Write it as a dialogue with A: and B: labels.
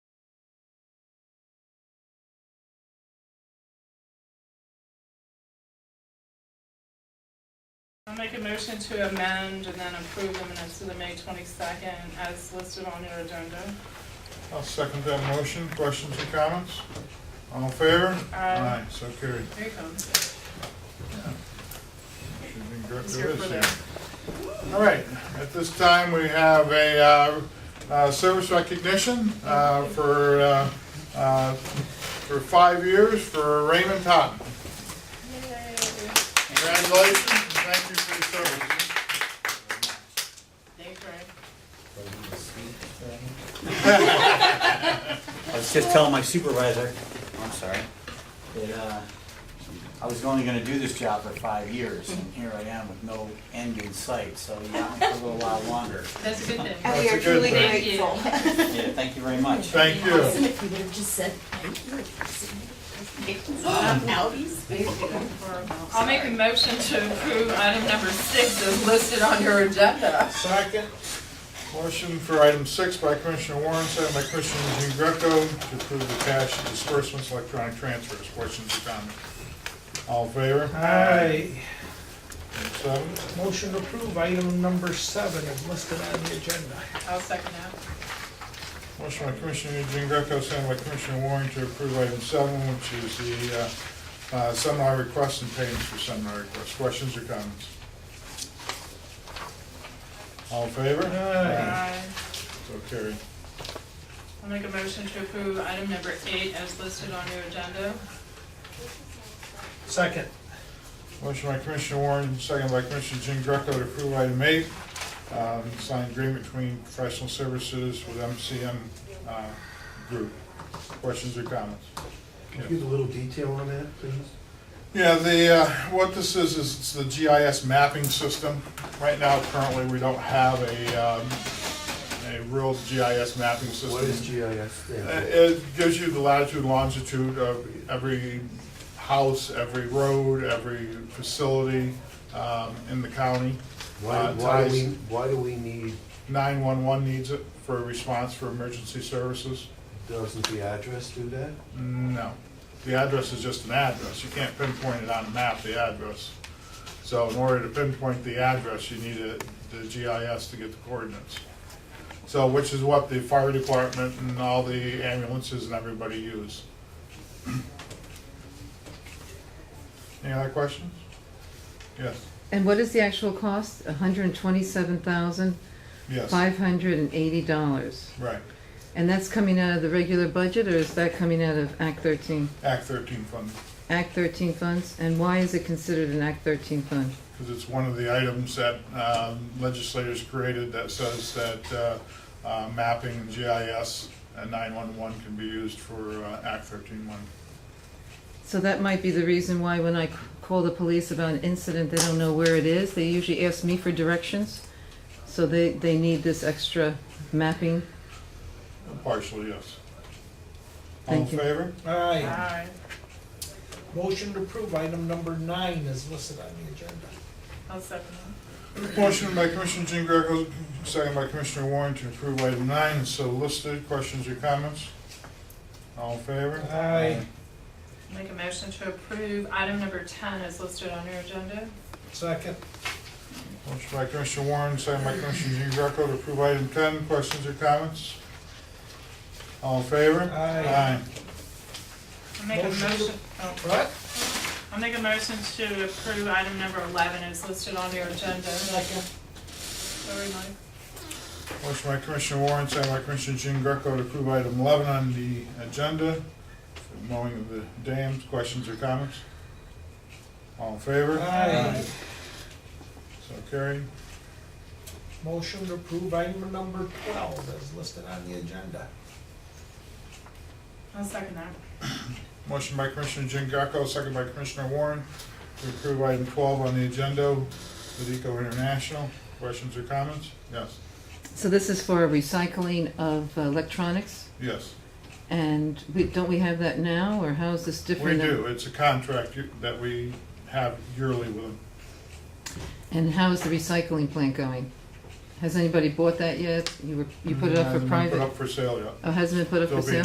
A: I'll make a motion to amend and then approve the minutes to the May twenty-second as listed on your agenda.
B: I'll second that motion. Questions or comments? All in favor?
A: Aye.
B: So carried.
A: Here you comes.
B: Should be good
A: He's
B: to
A: here
B: this
A: for
B: here.
A: that.
B: All right, at this time, we have a uh, uh, service recognition uh, for, uh, uh, for five years for Raymond Totten.
A: Yay.
B: Congratulations, and thank you for your service.
A: Thanks, Ray.
C: I was just telling my supervisor, I'm sorry, that uh, I was only gonna do this job for five years, and here I am with no end in sight, so you got me for a little while longer.
A: That's a good thing.
D: And we are
B: That's a good
D: truly
B: thing.
A: Thank you.
D: grateful.
C: Yeah, thank you very much.
B: Thank you.
E: Awesome if you would have just said, thank you.
A: I'll make a motion to approve item number six as listed on your agenda.
B: Second. Motion for item six by Commissioner Warren, second by Commissioner Jean Greco to approve the cash disbursements, electronic transfers. Questions or comments? All in favor?
F: Aye.
B: Item Seven.
F: Motion to approve item number seven is listed on the agenda.
A: I'll second that.
B: Motion by Commissioner Jean Greco, second by Commissioner Warren to approve item seven, which is the uh, uh, seminar requests and payments for seminar requests. Questions or comments? All in favor?
F: Aye.
A: Aye.
B: So carried.
A: I'll make a motion to approve item number eight as listed on your agenda.
F: Second.
B: Motion by Commissioner Warren, second by Commissioner Jean Greco to approve item eight, um, signed agreement between professional services with MCM uh, Group. Questions or comments?
G: Could you get a little detail on that, please?
B: Yeah, the, uh, what this is, is it's the GIS mapping system. Right now, currently, we don't have a, um, a real GIS mapping system.
G: What is GIS stand
B: Uh,
G: for?
B: It gives you the latitude, and longitude of every house, every road, every facility um, in the county.
G: Why,
B: Uh,
G: why do
B: ties-
G: we, why do we need,
B: 911 needs it for a response for emergency services.
G: doesn't the address do that?
B: No. The address is just an address. You can't pinpoint it on a map, the address. So in order to pinpoint the address, you need a- the GIS to get the coordinates. So, which is what the fire department and all the ambulances and everybody use. Any other questions? Yes,
H: And what is the actual cost? hundred and twenty-seven thousand,
B: yes,
H: five hundred and eighty dollars.
B: right.
H: And that's coming out of the regular budget, or is that coming out of Act thirteen?
B: Act thirteen funding,
H: Act thirteen funds, and why is it considered an Act thirteen fund?
B: because it's one of the items that um, legislators created that says that uh, uh, mapping and GIS and 911 can be used for uh, Act 13 money.
H: So that might be the reason why when I c- call the police about an incident, they don't know where it is, they usually ask me for directions. So they, they need this extra mapping.
B: Partially, yes. All in
H: Thank you.
B: favor?
F: Aye.
A: Aye.
F: Motion to approve item number nine is listed on the agenda.
A: I'll second that.
B: Motion by Commissioner Jean Greco, second by Commissioner Warren to approve item nine is so listed. Questions or comments? All in favor?
F: Aye.
A: Make a motion to approve item number ten as listed on your agenda.
F: Second.
B: Motion by Commissioner Warren, second by Commissioner Jean Greco to approve item 10. Questions or comments? All in favor?
F: Aye.
A: I'll make a
F: Motion to-
A: motion, oh,
F: What?
A: I'll make a motion to approve item number eleven as listed on your agenda.
F: Second.
A: Sorry, Mike.
B: Motion by Commissioner Warren, second by Commissioner Jean Greco to approve item eleven on the agenda, mowing of the dams. Questions or comments? All in favor?
F: Aye.
B: So carried.
F: Motion to approve item number twelve is listed on the agenda.
A: I'll second that.
B: Motion by Commissioner Jean Greco, second by Commissioner Warren to approve item twelve on the agenda with Eco International. Questions or comments? Yes,
H: So this is for recycling of electronics,
B: yes.
H: and we, don't we have that now, or how is this
B: We
H: different? than-
B: do. It's a contract you- that we have yearly with them.
H: And how is the recycling plant going? Has anybody bought that yet? You were, you put it up for
B: Hasn't been Put
H: private?
B: up for sale yet.
H: Oh, hasn't been put up for
B: There'll be
H: sale?